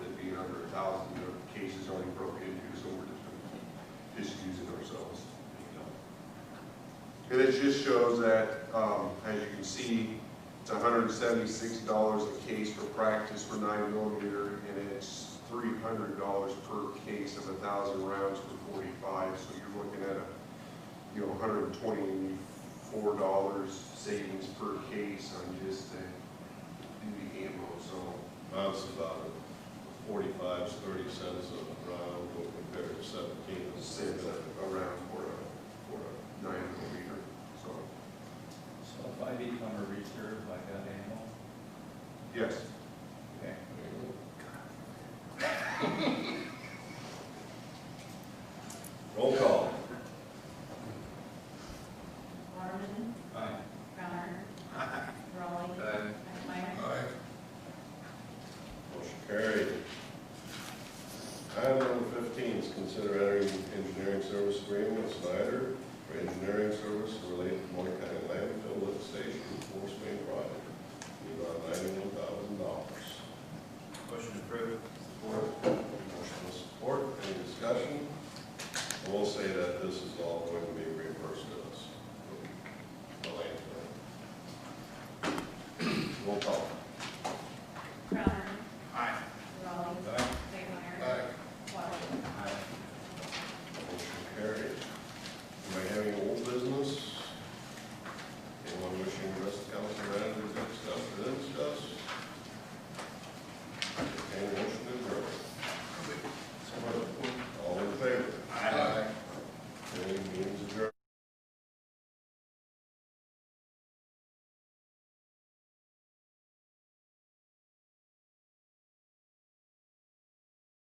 And it just shows that, um, as you can see, it's hundred and seventy-six dollars a case for practice for nine millimeter, and it's three hundred dollars per case of a thousand rounds for forty-five, so you're looking at a, you know, hundred and twenty-four dollars savings per case on just the duty ammo, so. Mine's about forty-five, thirty cents a round, when compared to seventeen. and cents six. uh, around for a, for a uh, nine millimeter, so, So if I become a reserve like that animal, yes. okay. Roll call. Waterman, Aye. Crowner. Raleigh. McMyer. Motion carried. Item number fifteen is consider entering engineering service agreement with Snyder for engineering service related to Moore County landfill lift station force main project. in the amount of ninety-one thousand dollars. Motion approved. Support. Motion with support, any discussion? I will say that this is all going to be